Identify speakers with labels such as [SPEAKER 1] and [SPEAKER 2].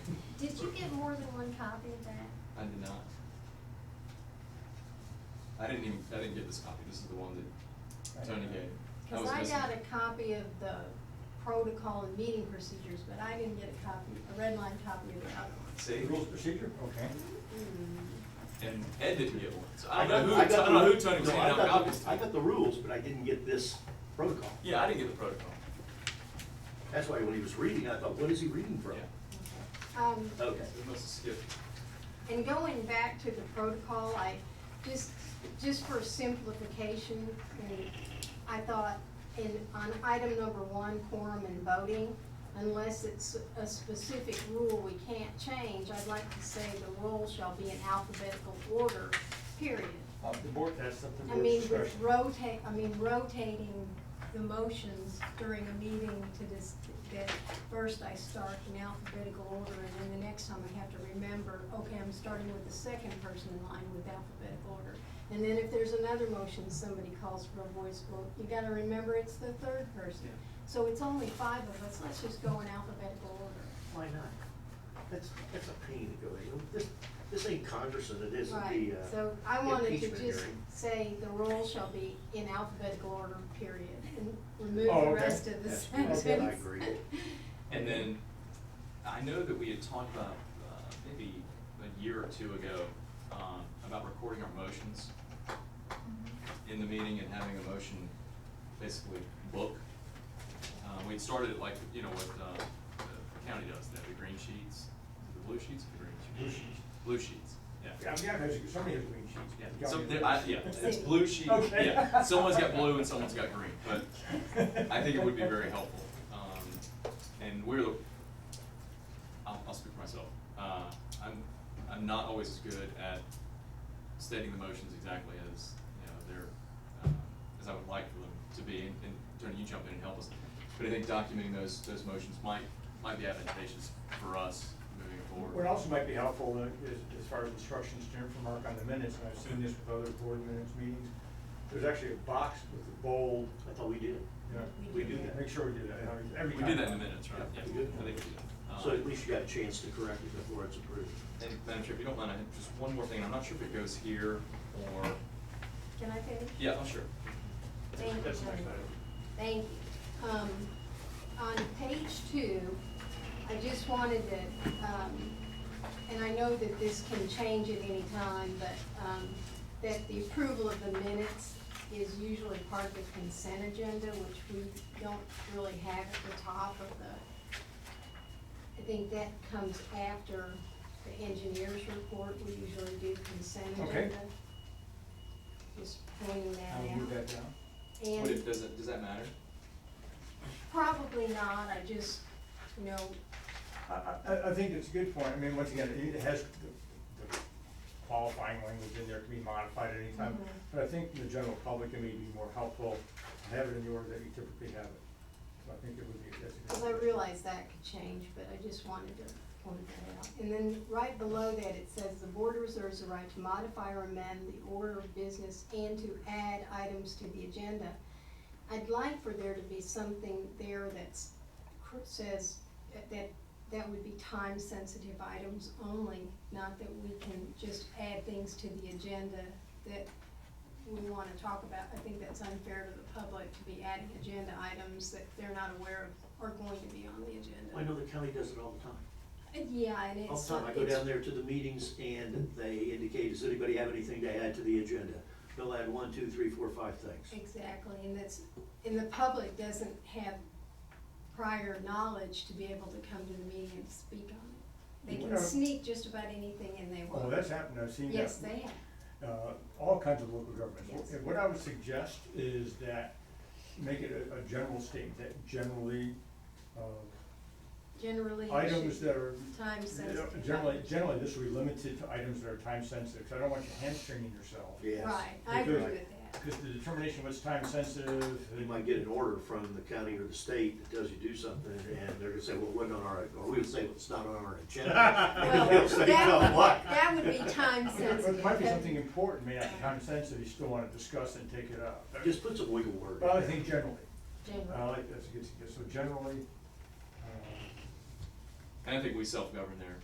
[SPEAKER 1] more than one copy of that?
[SPEAKER 2] I did not. I didn't even, I didn't get this copy, this is the one that Tony gave. That
[SPEAKER 1] Cause
[SPEAKER 2] was
[SPEAKER 1] I
[SPEAKER 2] missing.
[SPEAKER 1] got a copy of the protocol and meeting procedures, but I didn't get a copy, a red line copy of the other one.
[SPEAKER 2] See?
[SPEAKER 3] Rules of procedure, okay.
[SPEAKER 2] And Ed didn't get one, so I don't know who, I don't know who Tony was handing
[SPEAKER 4] No, I
[SPEAKER 2] out
[SPEAKER 4] got the-
[SPEAKER 2] copies to.
[SPEAKER 4] I got the rules, but I didn't get this protocol.
[SPEAKER 2] Yeah, I didn't get the protocol.
[SPEAKER 4] That's why when he was reading, I thought, what is he reading from?
[SPEAKER 2] Yeah.
[SPEAKER 1] Um,
[SPEAKER 4] Okay.
[SPEAKER 2] We must have skipped.
[SPEAKER 1] And going back to the protocol, I, just, just for simplification, and I thought in, on item number one, quorum and voting, unless it's a specific rule we can't change, I'd like to say the roll shall be in alphabetical order, period.
[SPEAKER 3] Uh, the board, that's up to the
[SPEAKER 1] I
[SPEAKER 3] board's
[SPEAKER 1] mean,
[SPEAKER 3] discretion.
[SPEAKER 1] with rotate, I mean, rotating the motions during a meeting to this, that first I start in alphabetical order, and then the next time I have to remember, okay, I'm starting with the second person in line with alphabetical order. And then if there's another motion, somebody calls for a voice vote, you gotta remember it's the third person.
[SPEAKER 2] Yeah.
[SPEAKER 1] So it's only five of us, let's just go in alphabetical order.
[SPEAKER 4] Why not? That's, that's a pain to go in. This, this ain't Congress and it isn't
[SPEAKER 1] Right,
[SPEAKER 4] the, uh.
[SPEAKER 1] so I wanted to
[SPEAKER 4] impeachment
[SPEAKER 1] just
[SPEAKER 4] hearing.
[SPEAKER 1] say the roll shall be in alphabetical order, period, and remove
[SPEAKER 3] Oh,
[SPEAKER 1] the
[SPEAKER 3] okay.
[SPEAKER 1] rest of the
[SPEAKER 4] That's-
[SPEAKER 1] sentence.
[SPEAKER 3] okay, I
[SPEAKER 4] agree.
[SPEAKER 2] And then, I know that we had talked about, uh, maybe a year or two ago, um, about recording our motions in the meeting and having a motion basically book. Uh, we'd started it like, you know, what, uh, the county does, they have the green sheets, the blue sheets, or the green sheets?
[SPEAKER 3] Blue sheets.
[SPEAKER 2] Blue sheets, yeah.
[SPEAKER 3] Yeah, I've got those, somebody has green sheets.
[SPEAKER 2] Yeah,
[SPEAKER 3] Y'all
[SPEAKER 2] some,
[SPEAKER 3] do
[SPEAKER 2] there, I,
[SPEAKER 3] that.
[SPEAKER 2] yeah, it's
[SPEAKER 1] See.
[SPEAKER 2] blue sheet,
[SPEAKER 3] Okay.
[SPEAKER 2] yeah, someone's got blue and someone's got green, but I think it would be very helpful. Um, and we're, the- I'll, I'll speak for myself, uh, I'm, I'm not always as good at stating the motions exactly as, you know, they're, um, as I would like for them to be, and, and Tony, you jump in and help us. But I think documenting those, those motions might, might be advantageous for us moving forward.
[SPEAKER 3] What also might be helpful uh, is, as far as instructions to from Mark on the minutes, and I've seen this with other board minutes meetings, there's actually a box with the bold,
[SPEAKER 4] I thought we did.
[SPEAKER 3] you know.
[SPEAKER 4] We do that.
[SPEAKER 3] Make sure we do that every
[SPEAKER 2] We
[SPEAKER 3] time.
[SPEAKER 2] did that in the minutes, right?
[SPEAKER 4] Yeah,
[SPEAKER 2] Yeah,
[SPEAKER 4] we did.
[SPEAKER 2] I think we did. Um,
[SPEAKER 4] So at least you got a chance to correct it before it's approved.
[SPEAKER 2] And Madam Chair, if you don't mind, I have just one more thing. I'm not sure if it goes here or,
[SPEAKER 1] Can I finish?
[SPEAKER 2] yeah, I'm sure.
[SPEAKER 1] Thank you,
[SPEAKER 3] That's the next
[SPEAKER 1] Tony.
[SPEAKER 3] item.
[SPEAKER 1] Thank you. Um, on page two, I just wanted to, um, and I know that this can change at any time, but, um, that the approval of the minutes is usually part of the consent agenda, which we don't really have at the top of the, I think that comes after the engineer's report. We usually do consent
[SPEAKER 3] Okay.
[SPEAKER 1] agenda. Just pointing that out.
[SPEAKER 3] I'll move that down.
[SPEAKER 1] And-
[SPEAKER 2] What if, does it, does that matter?
[SPEAKER 1] Probably not, I just, you know,
[SPEAKER 3] I, I, I think it's a good point, I mean, once again, it has, the the qualifying language in there can be modified at any time,
[SPEAKER 1] Mhm.
[SPEAKER 3] but I think the general public, it may be more helpful to have it in the order that you typically have it. So I think it would be, that's a good.
[SPEAKER 1] because I realize that could change, but I just wanted to point that out. And then right below that, it says, "The board reserves the right to modify or amend the order of business and to add items to the agenda." I'd like for there to be something there that's, cr- says, that- that, that would be time-sensitive items only, not that we can just add things to the agenda that we want to talk about, I think that's unfair to the public to be adding agenda items that they're not aware of are going to be on the
[SPEAKER 4] I know
[SPEAKER 1] agenda.
[SPEAKER 4] the county does it all the time.
[SPEAKER 1] Uh, Yeah, and
[SPEAKER 4] All
[SPEAKER 1] it's.
[SPEAKER 4] the time, I go
[SPEAKER 1] it's-
[SPEAKER 4] down there to the meetings and they indicate, does anybody have anything to add to the agenda? They'll add one, two, three, four, five things.
[SPEAKER 1] Exactly, and that's, and the public doesn't have prior knowledge to be able to come to the meeting and speak on it. They can
[SPEAKER 3] Well-
[SPEAKER 1] sneak just about anything and they
[SPEAKER 3] Oh,
[SPEAKER 1] will.
[SPEAKER 3] that's happened, I've seen that.
[SPEAKER 1] Yes, they have.
[SPEAKER 3] uh, all kinds of local governments.
[SPEAKER 1] Yes.
[SPEAKER 3] And what I would suggest is that, make it a, a general statement, that generally, uh,
[SPEAKER 1] Generally. it
[SPEAKER 3] items
[SPEAKER 1] should be
[SPEAKER 3] that are.
[SPEAKER 1] Time sensitive.
[SPEAKER 3] Generally, generally, this will be limited to items that are time sensitive, so I don't want you hamstringing yourself.
[SPEAKER 4] Yes.
[SPEAKER 1] Right, I agree
[SPEAKER 3] Because-
[SPEAKER 1] with that.
[SPEAKER 3] Because the determination of what's time sensitive. uh,
[SPEAKER 4] You might get an order from the county or the state that tells you do something, and they're gonna say, well, it wasn't on our, or we would say, well, it's not on our agenda.
[SPEAKER 1] Well,
[SPEAKER 4] And they'll say,
[SPEAKER 1] that-
[SPEAKER 4] no, what?
[SPEAKER 1] That would be time
[SPEAKER 3] But It
[SPEAKER 1] sensitive.
[SPEAKER 3] but it might be something important, may not be time sensitive, you still wanna discuss and take it up.
[SPEAKER 4] Just put some wiggle word. in
[SPEAKER 3] But I
[SPEAKER 4] there.
[SPEAKER 3] think generally,
[SPEAKER 1] Generally.
[SPEAKER 3] I like, that's a good suggestion, so generally, uh,
[SPEAKER 2] And I think we self-govern there